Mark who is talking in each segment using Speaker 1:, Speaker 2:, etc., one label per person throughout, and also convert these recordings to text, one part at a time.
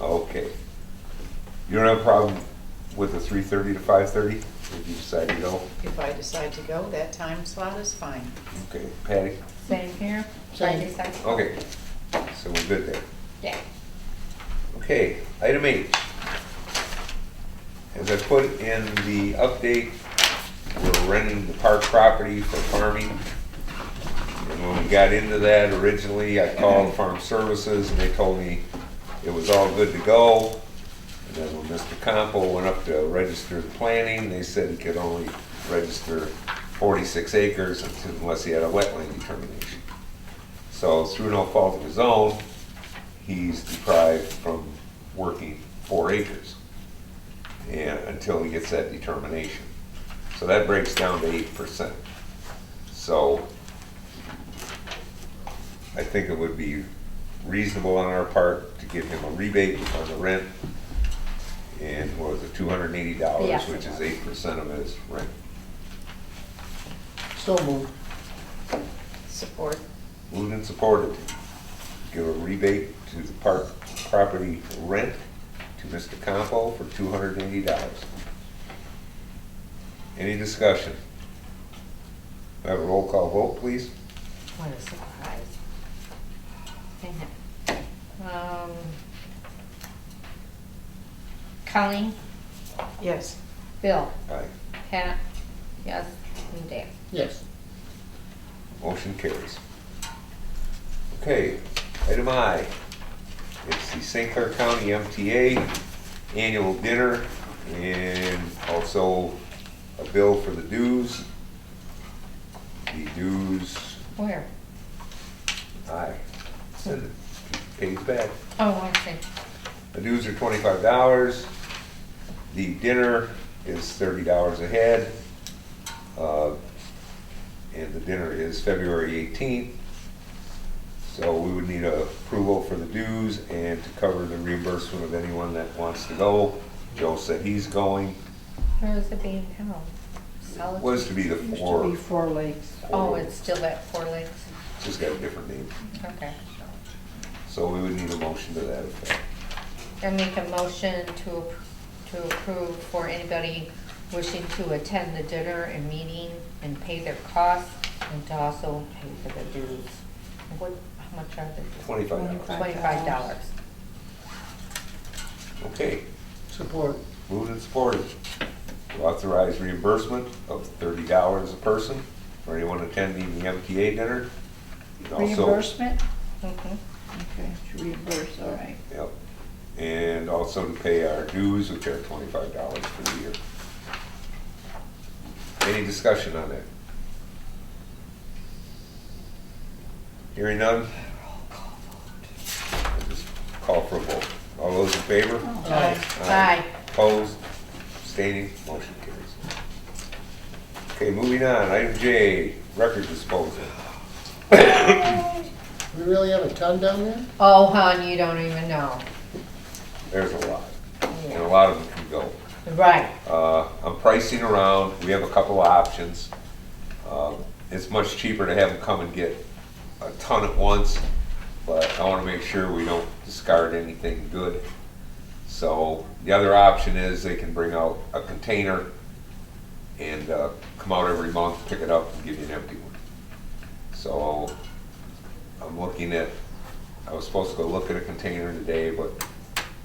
Speaker 1: Okay. You don't have a problem with the three thirty to five thirty, if you decide to go?
Speaker 2: If I decide to go, that time slot is fine.
Speaker 1: Okay, Patty?
Speaker 3: Same here.
Speaker 4: Same.
Speaker 3: Like I said.
Speaker 1: Okay, so we're good there.
Speaker 3: Yeah.
Speaker 1: Okay, item eight. As I put in the update, we're renting the park property for farming. And when we got into that originally, I called Farm Services and they told me it was all good to go. And then when Mr. Compo went up to register the planning, they said he could only register forty-six acres unless he had a wetland determination. So through no fault of his own, he's deprived from working four acres and, until he gets that determination. So that breaks down to eight percent. So I think it would be reasonable on our part to give him a rebate on the rent. And what was it, two hundred and eighty dollars,
Speaker 3: Yes, it
Speaker 1: which is
Speaker 3: was.
Speaker 1: eight percent of his rent.
Speaker 4: So moved.
Speaker 2: Support.
Speaker 1: Moved and supported. Give a rebate to the park property rent to Mr. Campo for two hundred and eighty dollars. Any discussion? May I Have a roll call vote, please?
Speaker 3: What a surprise. Dang it. Um, Colleen,
Speaker 2: Yes.
Speaker 3: Bill,
Speaker 1: Aye.
Speaker 3: Pat, yes, and Dan.
Speaker 4: Yes.
Speaker 1: Motion carries. Okay, item I. It's the St. Clair County MTA Annual Dinner and also a bill for the dues. The dues
Speaker 3: Where?
Speaker 1: Aye. Send it. Pays back.
Speaker 3: Oh, I see.
Speaker 1: The dues are twenty-five dollars. The dinner is thirty dollars a head. Uh, And the dinner is February eighteenth. So we would need a approval for the dues and to cover the reimbursement of anyone that wants to go. Joe said he's going.
Speaker 3: Where is it being held? Solid-
Speaker 1: Was to be the
Speaker 5: Used to be
Speaker 1: four.
Speaker 5: Four Lakes.
Speaker 3: Oh, it's still at Four Lakes?
Speaker 1: Just got a different name.
Speaker 3: Okay.
Speaker 1: So we would need a motion to that effect.
Speaker 3: I make a motion to, ap- to approve for anybody wishing to attend the dinner and meeting and pay their costs and to also pay for the dues. What, how much are the dues?
Speaker 1: Twenty-five dollars.
Speaker 3: Twenty-five dollars.
Speaker 1: Okay.
Speaker 4: Support.
Speaker 1: Moved and supported to authorize reimbursement of thirty dollars a person for anyone attending the MTA dinner. And also-
Speaker 5: Reimbursement?
Speaker 3: Mhm.
Speaker 5: Okay, it's reimbursed, all right.
Speaker 1: Yep. And also to pay our dues, which are twenty-five dollars per year. Any discussion on that? Hearing none? I'll Just Call for a vote. All those in favor?
Speaker 4: Aye.
Speaker 3: Aye.
Speaker 1: Um, Opposed, abstaining, motion carries. Okay, moving on, item J, record disposal.
Speaker 4: We really have a ton down there?
Speaker 3: Oh, hon, you don't even know.
Speaker 1: There's a lot, and a
Speaker 3: Yeah.
Speaker 1: lot of them can go.
Speaker 3: Right,
Speaker 1: Uh, I'm pricing around, we have a couple of options. Um, It's much cheaper to have them come and get a ton at once, but I wanna make sure we don't discard anything good. So, the other option is they can bring out a container and, uh, come out every month, pick it up and give you an empty one. So, I'm looking at, I was supposed to go look at a container today, but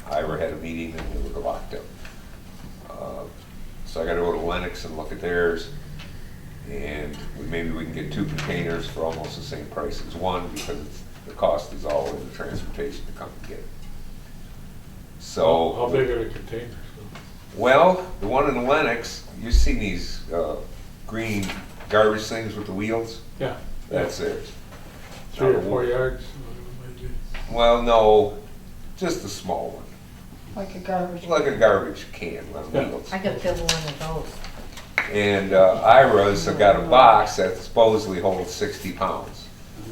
Speaker 1: Ira had a meeting and it was locked up. Uh, So I gotta go to Lennox and look at theirs. And we- maybe we can get two containers for almost the same price as one because it's- the cost is all in the transportation to come and get it. So.
Speaker 6: How big are the containers?
Speaker 1: Well, the one in Lennox, you've seen these uh, green garbage things with the wheels?
Speaker 6: Yeah.
Speaker 1: That's it.
Speaker 6: Three or four yards. whatever it might
Speaker 1: Well, no, just a small one,
Speaker 5: Like a garbage.
Speaker 1: like a garbage can on
Speaker 6: Yeah.
Speaker 1: wheels.
Speaker 3: I could fill one of those.
Speaker 1: And uh, Ira's have got a box that supposedly holds 60 pounds.
Speaker 6: be.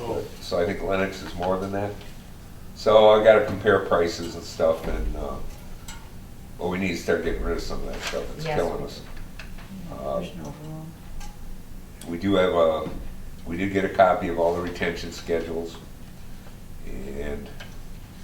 Speaker 6: Oh,
Speaker 1: So I think Lennox is more than that. So I gotta compare prices and stuff and, uh, well, we need to start getting rid of some of that stuff. It's
Speaker 3: Yes.
Speaker 1: killing us. Uh,
Speaker 5: There's no room.
Speaker 1: We do have a, we did get a copy of all the retention schedules, and